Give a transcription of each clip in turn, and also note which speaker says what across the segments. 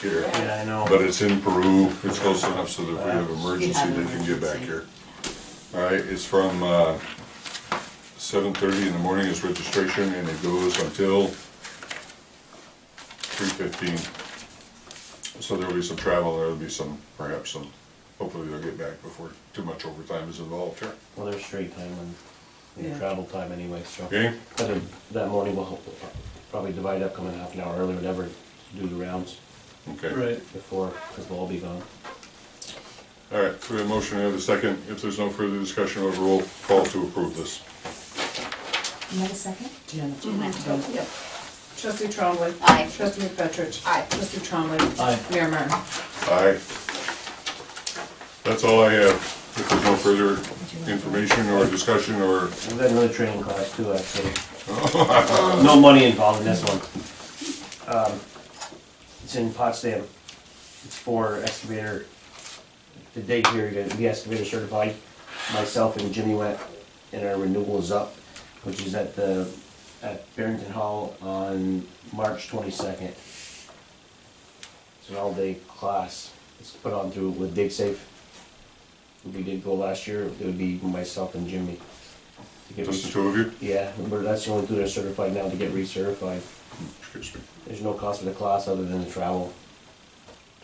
Speaker 1: here.
Speaker 2: Yeah, I know.
Speaker 1: But it's in Peru, it's close enough so that if we have emergency, they can get back here. All right, it's from, uh, seven thirty in the morning is registration and it goes until three fifteen. So there'll be some travel, there'll be some, perhaps some, hopefully they'll get back before too much overtime is involved here.
Speaker 2: Well, there's street time and-
Speaker 3: Yeah.
Speaker 2: and travel time anyway, so.
Speaker 1: Okay?
Speaker 2: But then that morning we'll hope- probably divide up, come in half an hour early, whatever, do the rounds
Speaker 1: Okay.
Speaker 4: Right,
Speaker 2: before, because we'll all be gone.
Speaker 1: All right, so we have a motion, we have a second. If there's no further discussion, we'll have a roll call to approve this.
Speaker 5: You have a second? Janet,
Speaker 3: Yep. Trustee Trombley.
Speaker 5: Aye.
Speaker 3: Trustee McFetrich. Aye. Trustee Trombley.
Speaker 4: Aye.
Speaker 3: Mayor Martin.
Speaker 1: Aye. That's all I have. If there's no further information or discussion or,
Speaker 2: We've got another training class too, actually. No money involved in this one. Um, It's in Potsdam. It's for excavator, the date here, you gotta be excavator certified. Myself and Jimmy went, and our renewal is up, which is at the, at Barrington Hall on March twenty-second. It's an all-day class. It's put on through with DigSafe. We did go last year, it would be myself and Jimmy. to get
Speaker 1: just
Speaker 2: res-
Speaker 1: the two of you?
Speaker 2: yeah, but that's the only two that are certified now to get recertified.
Speaker 1: Excuse me.
Speaker 2: There's no cost for the class other than the travel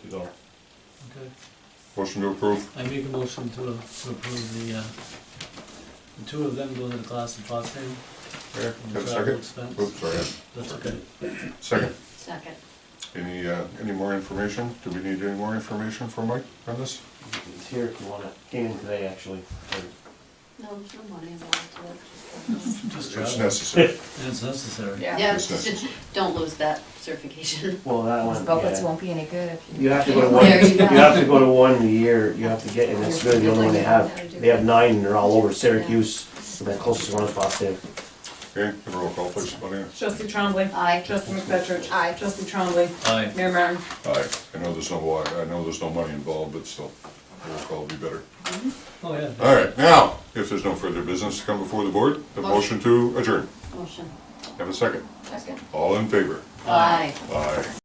Speaker 2: to go.
Speaker 4: okay.
Speaker 1: Motion to approve?
Speaker 4: I make a motion to approve the, uh, the two of them going to the class in Potsdam.
Speaker 1: Okay,
Speaker 4: and
Speaker 1: Got a
Speaker 4: travel
Speaker 1: second?
Speaker 4: expense.
Speaker 1: Oops, sorry.
Speaker 4: That's okay.
Speaker 1: Second.
Speaker 5: Second.
Speaker 1: Any, uh, any more information? Do we need any more information from Mike on this?
Speaker 2: It's here if you want it. Came in today, actually.
Speaker 5: No, there's no money involved to it. just-
Speaker 4: Just
Speaker 1: It's
Speaker 4: travel.
Speaker 1: necessary.
Speaker 4: And it's necessary.
Speaker 5: Yeah,
Speaker 1: It's
Speaker 5: just- don't lose that certification.
Speaker 2: Well, that one,
Speaker 6: Buckets
Speaker 2: yeah.
Speaker 6: won't be any good if you.
Speaker 2: You have to go to one,
Speaker 5: There you
Speaker 2: you
Speaker 5: go.
Speaker 2: have to go to one a year, you have to get, and it's really the only one they have. They have nine, and they're all over Syracuse, and the closest one is Boston.
Speaker 1: Okay, the roll call, please, Bonnie.
Speaker 3: Trustee Trombley.
Speaker 5: Aye.
Speaker 3: Trustee McFetrich. Aye. Trustee Trombley.
Speaker 4: Aye.
Speaker 3: Mayor Martin.
Speaker 1: Aye. I know there's no, wa- I know there's no money involved, but still, roll call would be better.
Speaker 4: Oh, yeah.
Speaker 1: All right, now, if there's no further business to come before the board, the motion to adjourn.
Speaker 5: Motion.
Speaker 1: Have a second.
Speaker 6: That's good.
Speaker 1: All in favor?
Speaker 5: Aye.
Speaker 1: Aye.